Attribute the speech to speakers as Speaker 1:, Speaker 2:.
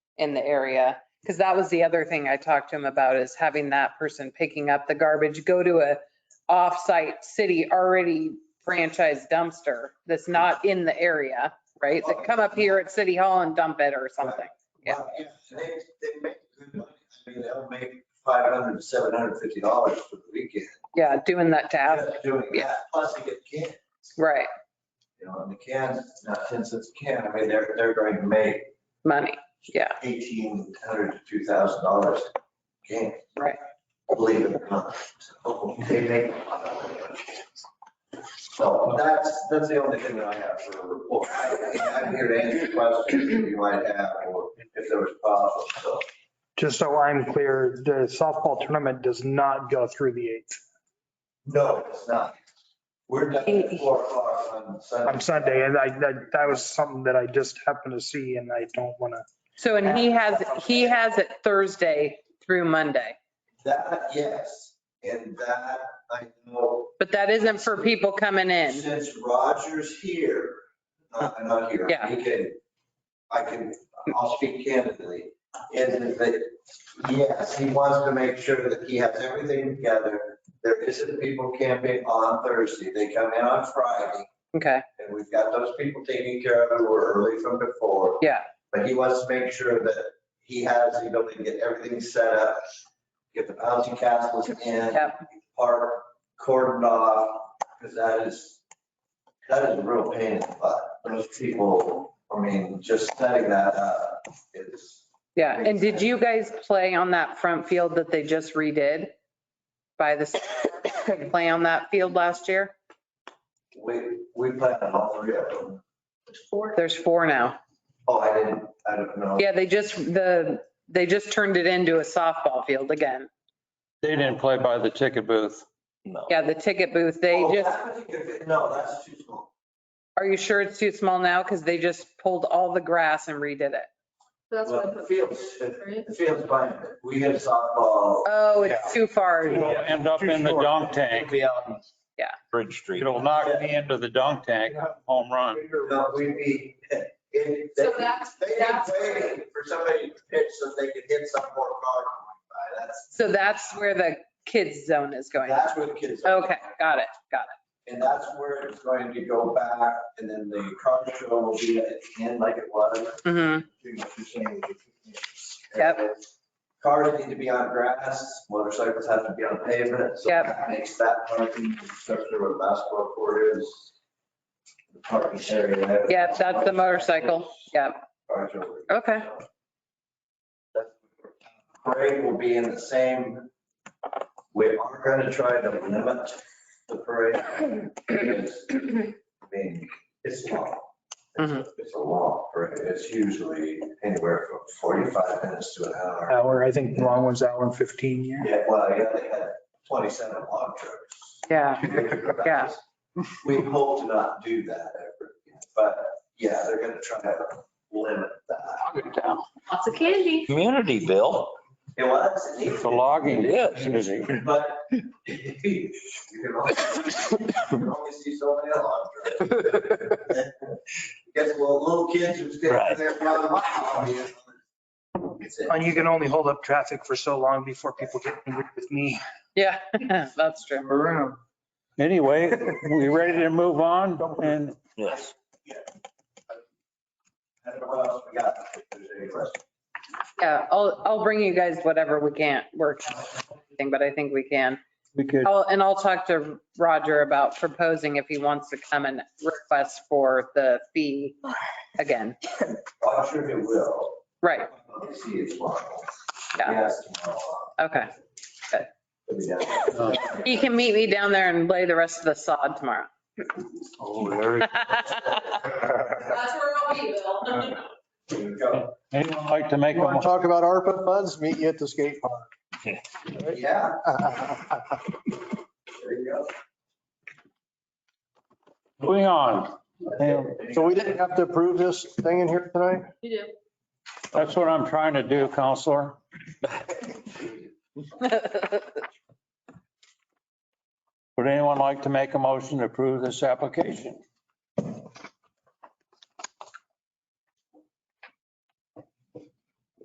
Speaker 1: in the area. Because that was the other thing I talked to him about is having that person picking up the garbage, go to a off-site city already franchised dumpster that's not in the area, right? That come up here at City Hall and dump it or something. Yeah.
Speaker 2: Well, They, they make good money. I mean, they'll make five hundred to seven hundred fifty dollars for the weekend.
Speaker 1: Yeah, doing that task,
Speaker 2: Just Doing
Speaker 1: yeah.
Speaker 2: that, plus they get canned,
Speaker 1: right,
Speaker 2: you know, and the can, not ten cents a can. I mean, they're, they're going to make
Speaker 1: money, yeah,
Speaker 2: eighteen hundred to two thousand dollars a can.
Speaker 1: Right.
Speaker 2: Believe it or not. So They make. a lot of money. So that's, that's the only thing that I have for a report. I- I'm here to answer questions that you might have or if there was problems, so.
Speaker 3: Just so I'm clear, the softball tournament does not go through the 8th
Speaker 2: No, it's not. We're done at four o'clock on Sunday.
Speaker 3: on Sunday. And I, that, that was something that I just happened to see and I don't want to.
Speaker 1: So, and he has, he has it Thursday through Monday,
Speaker 2: That, yes, and that, I know,
Speaker 1: but that isn't for people coming in.
Speaker 2: since Roger's here, not, not here.
Speaker 1: Yeah.
Speaker 2: He can, I can, I'll speak candidly, is that, yes, he wants to make sure that he has everything together. There isn't people camping on Thursday, they come in on Friday,
Speaker 1: Okay,
Speaker 2: and we've got those people taken care of who were early from before.
Speaker 1: yeah,
Speaker 2: But he wants to make sure that he has the ability to get everything set up, get the bouncy castles in,
Speaker 1: Yep.
Speaker 2: park cordoned off, because that is, that is a real pain in the butt. Those people, I mean, just setting that up is,
Speaker 1: yeah. And did you guys play on that front field that they just redid? By the, play on that field last year?
Speaker 2: we, we plan on all three of them.
Speaker 1: There's four now.
Speaker 2: Oh, I didn't, I don't know.
Speaker 1: Yeah, they just, the, they just turned it into a softball field again.
Speaker 4: They didn't play by the ticket booth.
Speaker 1: Yeah, the ticket booth, they
Speaker 2: Oh,
Speaker 1: just,
Speaker 2: that particular- No, that's too small.
Speaker 1: are you sure it's too small now? Because they just pulled all the grass and redid it.
Speaker 5: That's what I
Speaker 2: Well, the
Speaker 5: put.
Speaker 2: Fields,
Speaker 5: Right?
Speaker 2: the field's fine. We had softball.
Speaker 1: Oh, it's too far.
Speaker 4: It'll end up in the dunk tank.
Speaker 2: Be out in
Speaker 6: Bridge Street.
Speaker 4: It'll knock me into the dunk tank, home run.
Speaker 2: No, we'd be, it, they,
Speaker 5: So that's-
Speaker 2: they'd be
Speaker 5: that's-
Speaker 2: waiting for somebody to pitch so they could hit some more car going by. That's,
Speaker 1: So that's where the kids zone is going.
Speaker 2: that's where the kids are.
Speaker 1: Okay, got it, got
Speaker 2: And that's where it's going to go back and then the car show will be at the end like it was.
Speaker 1: it. Mm-hmm,
Speaker 2: You know, you're saying-
Speaker 1: Yep.
Speaker 2: Cars need to be on grass, motorcycles have to be on pavement, so
Speaker 1: Yep.
Speaker 2: that makes that parking structure where the basketball court is. the Parking area.
Speaker 1: yeah, that's the motorcycle, yeah,
Speaker 2: Cars over.
Speaker 1: okay,
Speaker 2: Parade will be in the same, we are going to try to limit the parade. because, I mean, it's long.
Speaker 1: Mhm.
Speaker 2: It's a long parade. It's usually anywhere from 45 minutes to an hour.
Speaker 3: Hour, I think the long one's hour and 15 yeah.
Speaker 2: Yeah, well, yeah, they had 27 log trucks.
Speaker 1: yeah. Yeah.
Speaker 2: We hope to not do that ever, again, but yeah, they're going to try to limit that.
Speaker 5: Lots of candy.
Speaker 6: Community, Bill.
Speaker 2: It was.
Speaker 4: The logging. Susie.
Speaker 2: But you can only, you can only see so many alarm trucks. Guess well, little kids who's getting
Speaker 6: Right.
Speaker 2: there around the mile. It's it.
Speaker 3: And you can only hold up traffic for so long before people get angry with me.
Speaker 1: Yeah, that's true.
Speaker 3: Around.
Speaker 4: Anyway, we ready to move on? And
Speaker 6: Yes.
Speaker 2: I don't know what else we got. if there's any questions.
Speaker 1: Yeah, I'll, I'll bring you guys whatever we can't work, on everything, but I think we can.
Speaker 4: we could,
Speaker 1: I'll- And I'll talk to Roger about proposing if he wants to come and request for the fee again.
Speaker 2: Oh, I'm sure it will.
Speaker 1: Right,
Speaker 2: Let's See, it's possible.
Speaker 1: Yeah.
Speaker 2: Yes, tomorrow.
Speaker 1: okay.
Speaker 2: It'll be done.
Speaker 1: He can meet me down there and lay the rest of the sod tomorrow.
Speaker 6: Oh, Larry.
Speaker 5: That's where I'll be, Bill.
Speaker 2: Here we go.
Speaker 4: anyone like to make,
Speaker 7: You want
Speaker 4: a
Speaker 7: to talk about ARPA funds? Meet you at the skate
Speaker 2: Yeah,
Speaker 7: park.
Speaker 2: there you
Speaker 4: moving on?
Speaker 2: go.
Speaker 7: So we didn't have to approve this thing in here tonight?
Speaker 5: You do.
Speaker 4: That's what I'm trying to do, counselor. Would anyone like to make a motion to approve this application?